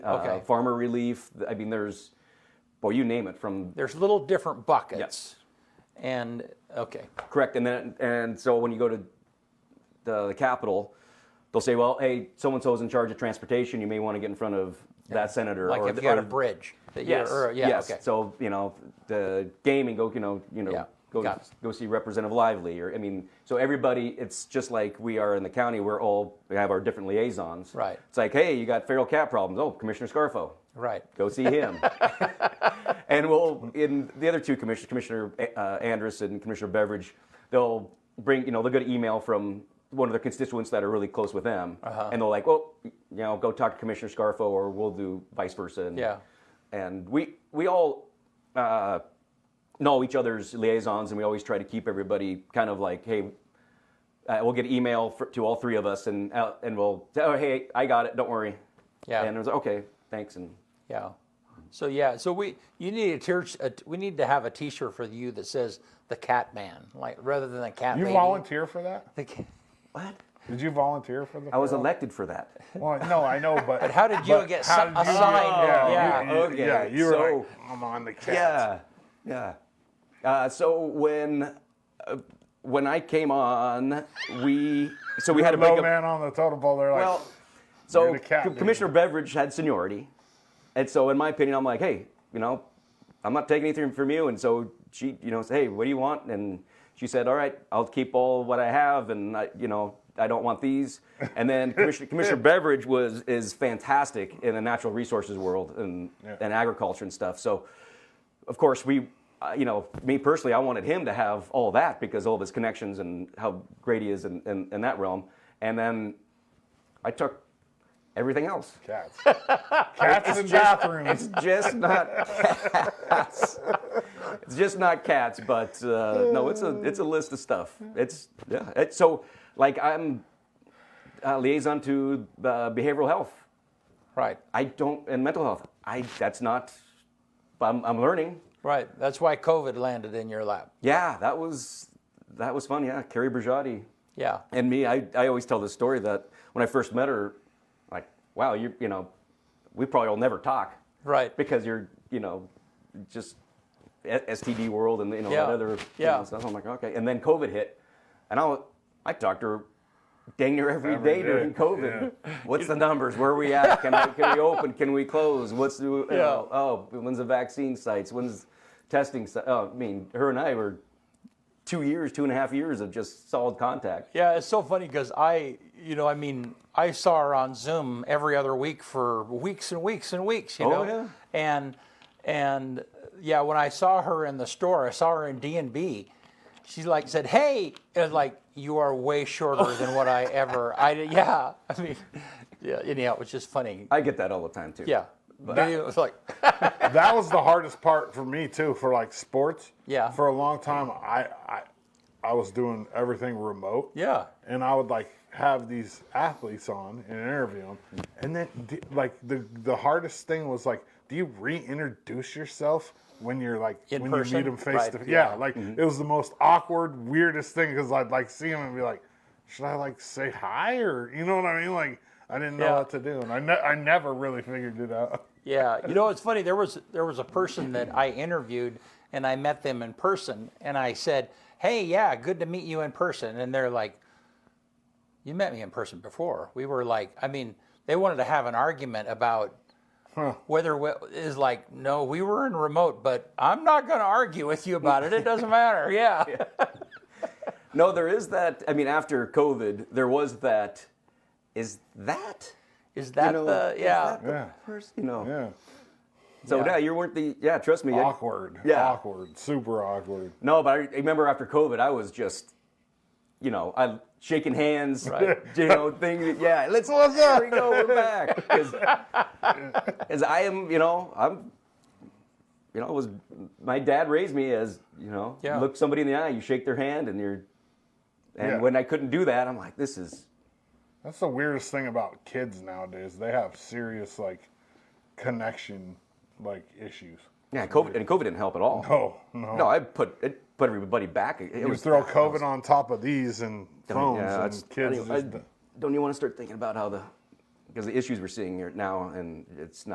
uh, Okay. farmer relief. I mean, there's, boy, you name it from There's little different buckets. Yes. And, okay, Correct. And then and so when you go to the, the Capitol, they'll say, well, hey, so and so's in charge of transportation. You may want to get in front of that senator. like or if the- you got or- a bridge. that you're- Yes. or- Yeah, yes. okay. So you know the gaming. Go you know you know Yeah, go got it. go see Representative Lively or I mean so everybody. It's just like we are in the county. We're all we have our different liaisons. Right. It's like hey, you got feral cat problems. Oh, Commissioner Scarfo. Right. Go see him. and we'll in the other two commissioners, Commissioner uh, Andrus and Commissioner Beveridge, they'll bring you know they'll get an email from one of their constituents that are really close with them, Uh-huh. and they'll like, well, you know, go talk to Commissioner Scarfo, or we'll do vice versa. And, Yeah. and we we all uh, know each other's liaisons, and we always try to keep everybody kind of like, hey, uh, we'll get email for, to all three of us, and uh, and we'll say, oh, hey, I got it, don't worry. Yeah. And it was okay, thanks, and Yeah. So yeah, so we you need a tier, a, we need to have a T-shirt for you that says the Cat Man, like rather than the Cat. You Lady. volunteer for that? The ca- what? Did you volunteer for the? I was fair? elected for that. Well, no, I know, but. how did you but get so- how did you assigned? get- Yeah, Yeah, you- you- okay, yeah, you were so- like, I'm on the cat. Yeah, yeah. Uh, so when uh, when I came on, we so we had a Low big man on the totem pole. They're like, well. So the cat Co- lady. Commissioner Beveridge had seniority, and so in my opinion, I'm like, hey, you know, I'm not taking anything from you, and so she, you know, said, hey, what do you want? And she said, all right, I'll keep all what I have, and I, you know. I don't want these. And then Commissioner, Commissioner Beveridge was is fantastic in the natural resources world and, Yeah. and agriculture and stuff. So of course, we, uh, you know, me personally, I wanted him to have all that because all of his connections and how great he is in, in, in that realm. And then I took everything else. cats. Cats in bathrooms. Just not cats. It's just not cats, but uh, no, it's a it's a list of stuff. It's yeah. It's, so like I'm uh, liaison to uh, behavioral health. right, I don't and mental health. I that's not. I'm, I'm learning. right. That's why COVID landed in your lap. Yeah, that was that was fun. Yeah, Carrie Brigiotti Yeah. and me. I, I always tell this story that when I first met her, like, wow, you you know, we probably will never talk, Right. Because you're you know, just E, S- STD world and you know Yeah. that other Yeah. you know, stuff. I'm like, okay. And then COVID hit, and I wa- I talked to her. Dang near every Every day day, during COVID. What's the numbers? Where are we at? Can, I, can we open? Can we close? What's the you know, oh when's the vaccine sites? When's testing? si- Oh, I mean, her and I were two years, two and a half years of just solid contact. Yeah, it's so funny because I, you know, I mean, I saw her on Zoom every other week for weeks and weeks and weeks, you Oh, know, yeah. and and yeah, when I saw her in the store, I saw her in D and B. She like said, "Hey," it was like you are way shorter than what I ever. I did- yeah, I mean, yeah. Anyhow, it was just funny. I get that all the time too. yeah, but it was like that was the hardest part for me too for like sports Yeah. for a long time i i i was doing everything remote Yeah. and i would like have these athletes on and interview them and then d- like the the hardest thing was like do you reintroduce yourself when you're like In when person? you meet them face Right, to face yeah. Mm-hmm. yeah, like it was the most awkward weirdest thing because i'd like see them and be like should i like say hi or you know what i mean like i didn't know Yeah. what to do and i, ne- I never really figured it out Yeah, you know it's funny. There was there was a person that I interviewed, and I met them in person, and I said, "Hey, yeah, good to meet you in person." And they're like, "You met me in person before." We were like, I mean, they wanted to have an argument about whether we, is like, no, we were in remote, but I'm not going to argue with you about it. It doesn't matter. Yeah, No, there is that. I mean, after COVID, there was that. Is that? is that you know, the is yeah? that the Yeah. Person, you know. yeah So Yeah. yeah. you weren't the. Yeah, trust me. I- awkward. Yeah. Awkward. Super awkward. No, but I remember after COVID, I was just, you know, I shaking hands, you know, thing. Yeah, let's let's go. We go. We're back because I am, you know, I'm, you know, it was my dad raised me as, you know, Yeah. look somebody in the eye, you shake their hand, and you're, and Yeah. when I couldn't do that, I'm like, this is That's the weirdest thing about kids nowadays. They have serious like connection like issues. yeah, COVID, and COVID didn't help at all. Oh no. No, I put it put everybody back. It, it you was throw COVID on top of these and phones it's- and kids I- just don't you want to start thinking about how the because the issues we're seeing here now, and it's not.